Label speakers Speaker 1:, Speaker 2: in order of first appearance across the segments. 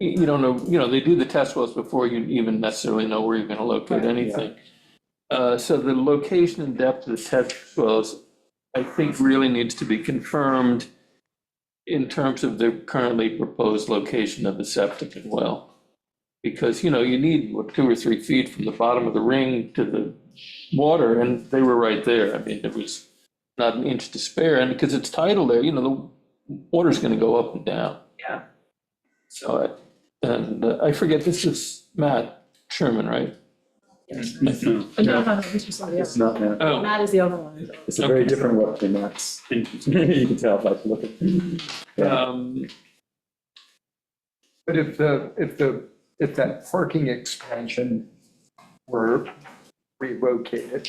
Speaker 1: You, you don't know, you know, they do the test wells before you even necessarily know where you're gonna locate
Speaker 2: Right.
Speaker 1: anything. Uh, so the location and depth of the test wells, I think really needs to be confirmed in terms of the currently proposed location of the septic and well. Because, you know, you need, what, two or three feet from the bottom of the ring to the water, and they were right there. I mean, it was not an inch to spare, and because it's tidal there, you know, the water's gonna go up and down.
Speaker 2: Yeah.
Speaker 1: So, I- and uh, I forget, this is Matt Sherman, right?
Speaker 2: No, no, no, this is somebody
Speaker 3: It's
Speaker 2: else.
Speaker 3: not that.
Speaker 1: Oh,
Speaker 2: Matt is the other one.
Speaker 3: It's a very
Speaker 1: Okay.
Speaker 3: different look than that's. You can tell by the look. Yeah.
Speaker 1: um,
Speaker 4: But if the, if the, if that parking expansion were relocated,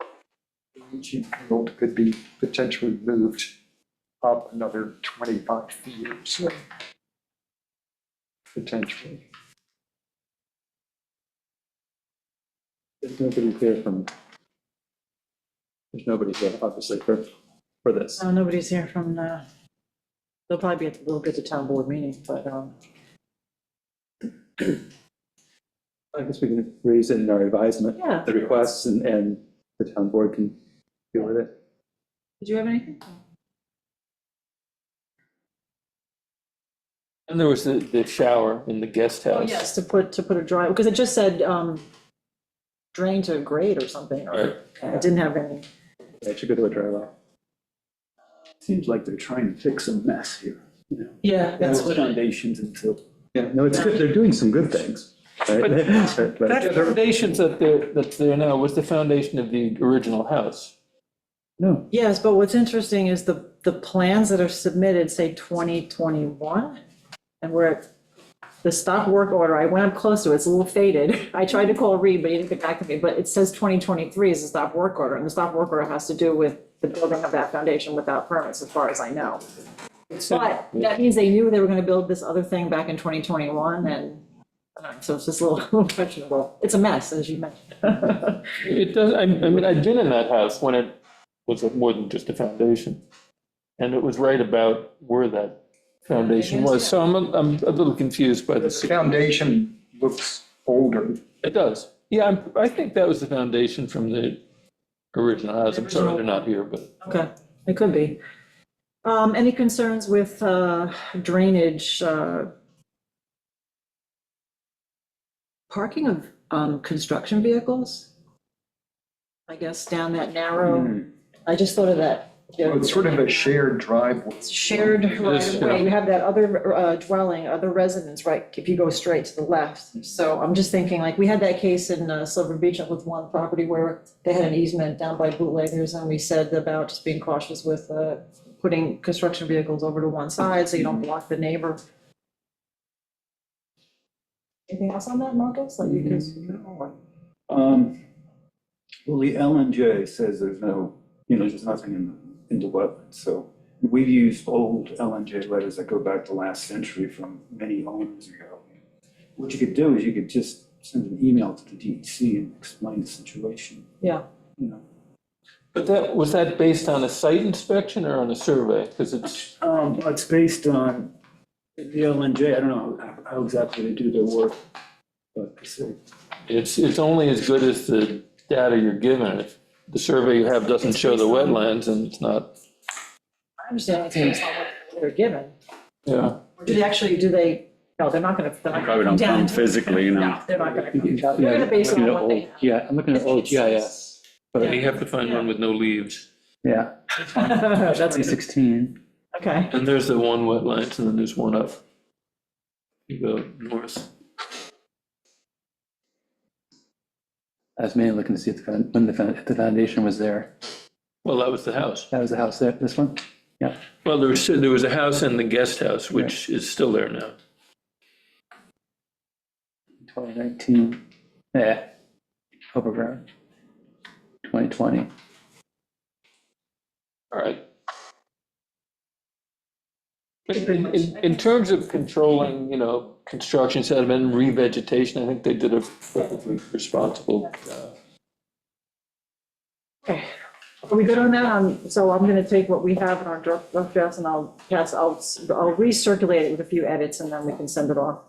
Speaker 4: the leaching field could be potentially moved up another 25 feet or so. Potentially.
Speaker 3: There's nobody here from. There's nobody here, obviously, for, for this.
Speaker 2: No, nobody's here from, uh, they'll probably be at, they'll be at the town board meeting, but, um,
Speaker 3: I guess we can raise it in our advisement,
Speaker 2: yeah.
Speaker 3: the requests, and, and the town board can deal with it.
Speaker 2: Did you have anything?
Speaker 1: and there was the, the shower in the guest
Speaker 2: Oh,
Speaker 1: house.
Speaker 2: yes, to put, to put a dry, because it just said, um, drain to grade or something, or
Speaker 1: Right.
Speaker 2: it didn't have any.
Speaker 3: It should go to a dry well.
Speaker 5: Seems like they're trying to fix a mess here, you know.
Speaker 2: Yeah, that's what,
Speaker 5: Foundations until.
Speaker 3: Yeah, no, it's good, they're doing some good things, right? But- but-
Speaker 1: That foundations that they're, that they're now, was the foundation of the original house.
Speaker 3: No,
Speaker 2: yes, but what's interesting is the, the plans that are submitted say twenty twenty-one, and we're at the stop work order, I went up close to it, it's a little faded, I tried to call Reed, but he didn't get back to me, but it says twenty twenty-three is the stop work order, and the stop work order has to do with the building of that foundation without permits, as far as I know. But that means they knew they were gonna build this other thing back in twenty twenty-one, and, I don't know, so it's just a little questionable, it's a mess, as you mentioned.
Speaker 1: It does, I, I mean, I've been in that house when it was more than just a foundation. And it was right about where that foundation was, so I'm, a- I'm a little confused by
Speaker 4: The
Speaker 1: this.
Speaker 4: foundation looks older.
Speaker 1: It does. Yeah, I'm- I think that was the foundation from the original house. I'm sorry they're not here, but
Speaker 2: Okay, it could be. Um, any concerns with, uh, drainage, uh, parking of, um, construction vehicles? I guess down that narrow, I just thought of that.
Speaker 4: Hmm. Well, It's sort of a shared driveway.
Speaker 2: Shared right
Speaker 1: This,
Speaker 2: of
Speaker 1: yeah.
Speaker 2: way, you have that other uh, dwelling, other residence, right, if you go straight to the left. So I'm just thinking, like, we had that case in uh, Silver Beach with one property where they had an easement down by bootleggers, and we said about just being cautious with uh, putting construction vehicles over to one side, so you don't block the neighbor. Anything else on that, Marcus, that you can?
Speaker 5: Um, well, the LNJ says there's no, you know, there's nothing in, in the wetland, so we've used old LNJ letters that go back to last century from many owners ago. What you could do is you could just send an email to the DEC and explain the situation,
Speaker 2: Yeah,
Speaker 5: you know.
Speaker 1: But that, was that based on a site inspection or on a survey? Because it's,
Speaker 5: Um, it's based on the LNJ, I don't know how- how exactly they do their work, but uh, so
Speaker 1: it's, it's only as good as the data you're given. If the survey you have doesn't
Speaker 2: It's
Speaker 1: show the
Speaker 2: based on-
Speaker 1: wetlands and it's not,
Speaker 2: I understand, it's based on what they're given.
Speaker 1: yeah.
Speaker 2: Or Do they actually, do they, no, they're not gonna, they're not
Speaker 6: Probably
Speaker 2: gonna
Speaker 6: don't
Speaker 2: come down.
Speaker 6: come physically, you know.
Speaker 2: No, they're not gonna.
Speaker 5: you
Speaker 2: We're gonna base it on what they have.
Speaker 3: yeah, I'm looking at old GIS,
Speaker 1: You have to find one with no leaves.
Speaker 3: yeah,
Speaker 2: That's,
Speaker 3: 2016.
Speaker 2: okay.
Speaker 1: And there's the one wetlands and then there's one up. You go north.
Speaker 3: I was mainly looking to see if the, found- when the, found- if the foundation was there.
Speaker 1: Well, that was the house.
Speaker 3: That was the house there, this one? Yeah.
Speaker 1: Well, there was, there was a house and the guest house, which is still there now.
Speaker 3: 2019, yeah, Hope around 2020.
Speaker 1: All right. In, in, in terms of controlling, you know, construction sediment and revegetation, I think they did a perfectly responsible. uh,
Speaker 2: Okay. Are we good on that? Um, so I'm gonna take what we have in our draft, draft drafts and I'll pass, I'll, I'll recirculate it with a few edits and then we can send it off